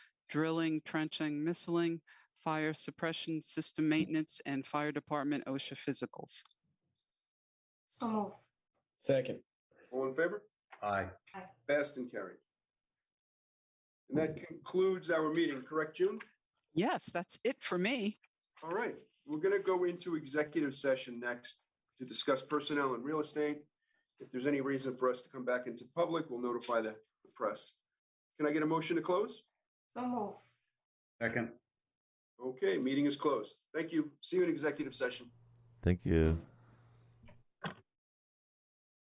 drilling, trenching, missiling, fire suppression system maintenance, and fire department OSHA physicals. So move. Second. All in favor? Aye. Passed and carried. And that concludes our meeting, correct, June? Yes, that's it for me. All right, we're going to go into executive session next to discuss personnel and real estate. If there's any reason for us to come back into public, we'll notify the the press. Can I get a motion to close? So move. Second. Okay, meeting is closed. Thank you. See you in executive session. Thank you.